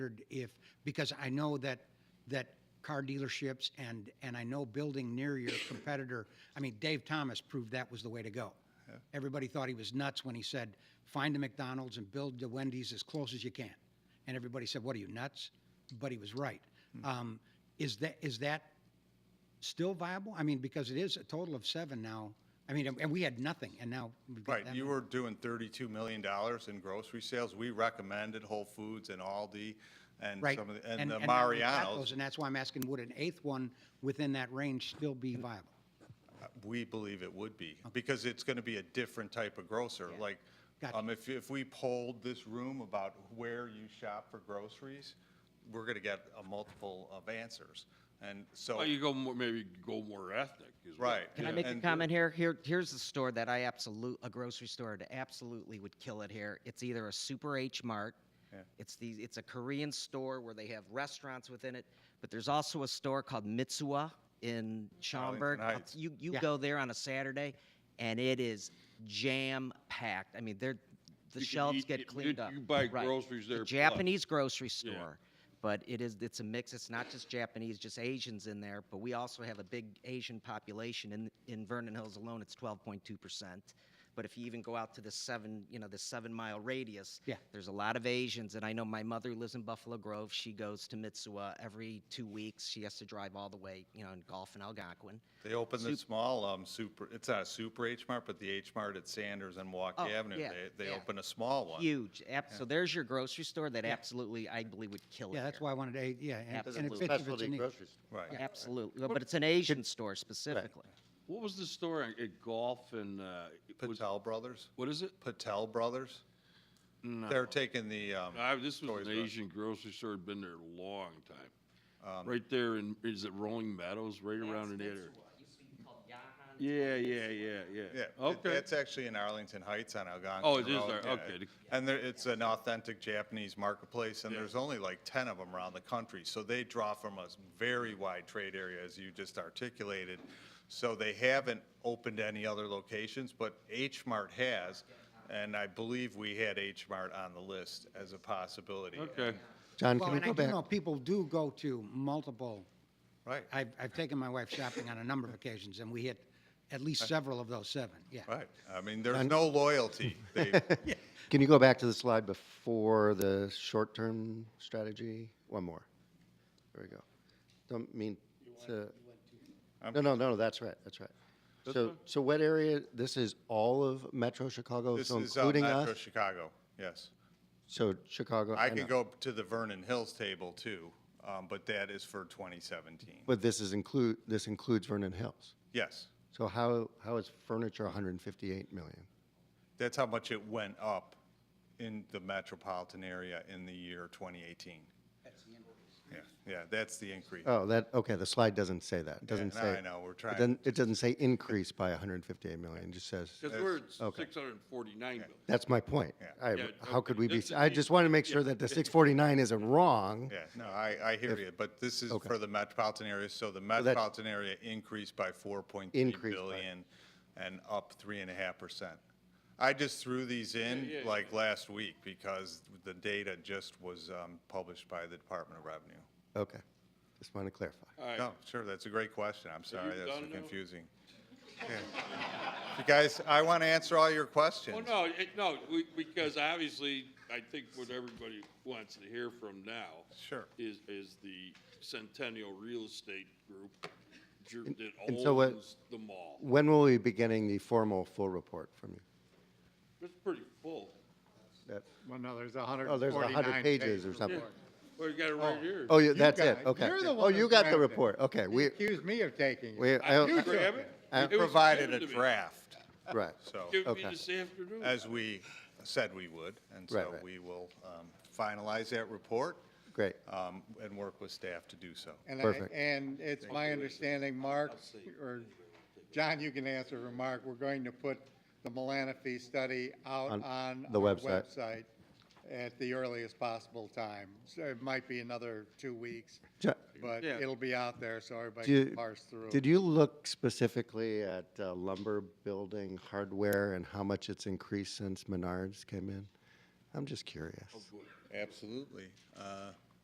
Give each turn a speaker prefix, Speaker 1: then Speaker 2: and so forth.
Speaker 1: wondered if, because I know that, that car dealerships and, and I know building near your competitor, I mean, Dave Thomas proved that was the way to go. Everybody thought he was nuts when he said, find a McDonald's and build the Wendy's as close as you can. And everybody said, what are you, nuts? But he was right.
Speaker 2: Hmm.
Speaker 1: Um, Is that, is that still viable? I mean, because it is a total of seven now. I mean, and we had nothing, and now we've got that.
Speaker 2: Right, you were doing $32 million in grocery sales. We recommended Whole Foods and Aldi and
Speaker 1: Right.
Speaker 2: some of, the- and the
Speaker 1: now we've got
Speaker 2: Mariano's.
Speaker 1: those, And that's why I'm asking, would an eighth one within that range still be viable?
Speaker 2: We believe it would be, because it's going to be a different type of grocer. Like,
Speaker 1: Gotcha.
Speaker 2: um, if, if we polled this room about where you shop for groceries, we're going to get a multiple of answers. And
Speaker 3: Well,
Speaker 2: so,
Speaker 3: Oh, you go more, maybe go more ethnic. Is what-
Speaker 2: Right.
Speaker 4: Can I
Speaker 2: Yeah.
Speaker 4: make a
Speaker 2: And-
Speaker 4: comment here? Here, here's a store that I absolute, a grocery store that absolutely would kill it here. It's either a Super H Mart. It's the, it's a Korean store where they have restaurants within it, but there's also a store called Mitsuwa in
Speaker 2: Oh,
Speaker 4: Schaumburg. I'll-
Speaker 2: Heights.
Speaker 4: You, you
Speaker 1: Yeah.
Speaker 4: go there on a Saturday and it is jam packed. I mean, they're, the
Speaker 3: You can
Speaker 4: shelves
Speaker 3: eat-
Speaker 4: get
Speaker 3: you-
Speaker 4: cleaned up.
Speaker 3: you buy
Speaker 4: Right.
Speaker 3: groceries
Speaker 4: The
Speaker 3: there, plus.
Speaker 4: Japanese grocery store. But it is, it's a mix. It's not just Japanese, just Asians in there. But we also have a big Asian population in, in Vernon Hills alone. It's 12.2%. But if you even go out to the seven, you know, the seven mile radius,
Speaker 1: Yeah.
Speaker 4: there's a lot of Asians. And I know my mother lives in Buffalo Grove. She goes to Mitsuwa every two weeks. She has to drive all the way, you know, in Gulf and Algonquin.
Speaker 2: they opened the small, um, super, it's not a super H Mart, but the H Mart at Sanders and
Speaker 4: Oh,
Speaker 2: Milwaukee Avenue.
Speaker 4: yeah,
Speaker 2: They, they
Speaker 4: yeah.
Speaker 2: opened a small one.
Speaker 4: Huge. Ab- So there's your grocery store that absolutely, I believe, would kill it.
Speaker 1: Yeah, that's
Speaker 4: here.
Speaker 1: why I wanted eight, yeah. and- and it
Speaker 5: Doesn't
Speaker 1: fits if it's
Speaker 5: specialty
Speaker 1: an eighth.
Speaker 5: grocery store.
Speaker 2: Right.
Speaker 4: Absolutely. But it's an Asian store specifically.
Speaker 3: What was the store at- at golf and uh, it was-
Speaker 2: Patel Brothers?
Speaker 3: what is it?
Speaker 2: Patel Brothers? They're taking the, um,
Speaker 3: I, this was
Speaker 2: Toys
Speaker 3: an
Speaker 2: R Us.
Speaker 3: Asian grocery store. Had been there a long
Speaker 2: Um,
Speaker 3: time. Right there in is it Rolling Meadows? Right around in there. Yeah, yeah, yeah, yeah.
Speaker 2: Yeah, it-
Speaker 3: Okay.
Speaker 2: it's actually in Arlington Heights on Algonquin.
Speaker 3: Oh, it is
Speaker 2: Road,
Speaker 3: there,
Speaker 2: yeah.
Speaker 3: okay.
Speaker 2: And there, it's an authentic Japanese marketplace, and
Speaker 3: Yeah.
Speaker 2: there's only like 10 of them around the country. So they draw from a very wide trade area, as you just articulated. So they haven't opened any other locations, but H Mart has, and I believe we had H Mart on the list as a possibility.
Speaker 3: Okay.
Speaker 5: John,
Speaker 1: Well,
Speaker 5: can we
Speaker 1: and I
Speaker 5: go
Speaker 1: do know
Speaker 5: back?
Speaker 1: people do go to multiple,
Speaker 2: Right,
Speaker 1: I've, I've taken my wife shopping on a number of occasions, and we hit at least several of those seven, yeah.
Speaker 2: right. I mean, there's no loyalty. They-
Speaker 5: Can you go back to the slide before the short-term strategy? One more. There we go. Don't mean to. No, no, no, that's right, that's right. So, so what area, this is all of Metro Chicago,
Speaker 2: This
Speaker 5: so
Speaker 2: is uh,
Speaker 5: including
Speaker 2: Metro
Speaker 5: us?
Speaker 2: Chicago, yes.
Speaker 5: So Chicago.
Speaker 2: I
Speaker 5: and
Speaker 2: could
Speaker 5: us.
Speaker 2: go to the Vernon Hills table too, um, but that is for 2017.
Speaker 5: But this is include, this includes Vernon Hills.
Speaker 2: Yes,
Speaker 5: So how, how is furniture 158 million?
Speaker 2: that's how much it went up in the metropolitan area in the year 2018. That's the increase. Yeah, yeah, that's the increase.
Speaker 5: Oh, that, okay, the slide doesn't say that. It doesn't
Speaker 2: no,
Speaker 5: say.
Speaker 2: I know, we're
Speaker 5: it
Speaker 2: trying.
Speaker 5: doesn't- It doesn't say increase by 158 million, it just says,
Speaker 3: Because we're at
Speaker 5: Okay.
Speaker 3: 649 million.
Speaker 5: that's my point.
Speaker 2: Yeah.
Speaker 5: I-
Speaker 3: Yeah,
Speaker 5: How could
Speaker 3: okay,
Speaker 5: we be,
Speaker 3: this is
Speaker 5: I
Speaker 3: the-
Speaker 5: just want to make sure
Speaker 3: yeah.
Speaker 5: that the 649 isn't wrong.
Speaker 2: Yeah, no, I, I hear you, but this is
Speaker 5: Okay.
Speaker 2: for the metropolitan area, so the
Speaker 5: that's-
Speaker 2: metropolitan area increased by 4.3
Speaker 5: Increased by-
Speaker 2: billion and up 3.5%. I just threw these
Speaker 3: Yeah, yeah,
Speaker 2: in like last week because the data just was um, published by the Department of Revenue.
Speaker 5: Okay, just want to clarify.
Speaker 3: All right.
Speaker 2: No, sure, that's a great question. I'm sorry,
Speaker 3: you
Speaker 2: that's so
Speaker 3: done now?
Speaker 2: confusing. You guys, I want to answer all your questions.
Speaker 3: Well, Oh, no, it, no, we, because obviously, I think what everybody wants to hear from now.
Speaker 2: Sure.
Speaker 3: Is, is the Centennial Real Estate Group ju- that
Speaker 5: and so what-
Speaker 3: owns the mall.
Speaker 5: When will we be getting the formal full report from you?
Speaker 3: It's pretty full.
Speaker 5: That-
Speaker 6: Well, no, there's 149.
Speaker 5: Oh, there's 100 pages or something.
Speaker 3: Well, you got it right here.
Speaker 5: Oh, yeah, that's
Speaker 6: got
Speaker 5: it,
Speaker 6: it.
Speaker 5: okay.
Speaker 6: You're the
Speaker 5: Oh,
Speaker 6: one
Speaker 5: you
Speaker 6: who
Speaker 5: got the
Speaker 6: grabbed it.
Speaker 5: report, okay, we,
Speaker 6: Accuse me of taking
Speaker 5: we,
Speaker 6: it.
Speaker 3: I
Speaker 5: I-
Speaker 3: did grab it.
Speaker 5: I-
Speaker 3: It was
Speaker 2: You Provided
Speaker 3: given
Speaker 2: a
Speaker 3: to me.
Speaker 2: draft,
Speaker 5: right,
Speaker 2: so,
Speaker 3: Give me
Speaker 5: Okay.
Speaker 3: this afternoon.
Speaker 2: as we said we would, and
Speaker 5: Right,
Speaker 2: so
Speaker 5: right.
Speaker 2: we will um, finalize that report
Speaker 5: great.
Speaker 2: um, and work with staff to do so.
Speaker 6: And I-
Speaker 5: Perfect.
Speaker 6: And it's my understanding, Mark, or, John, you can answer or Mark, we're going to put the Malanaphy study out
Speaker 5: On
Speaker 6: on
Speaker 5: the
Speaker 6: our
Speaker 5: website.
Speaker 6: website at the earliest possible time. So it might be another two weeks,
Speaker 5: Jo-
Speaker 6: but
Speaker 3: Yeah.
Speaker 6: it'll be out there so everybody can
Speaker 5: Do-
Speaker 6: parse through.
Speaker 5: Did you look specifically at uh, lumber building hardware and how much it's increased since Menards came in? I'm just curious.
Speaker 2: Absolutely. Uh,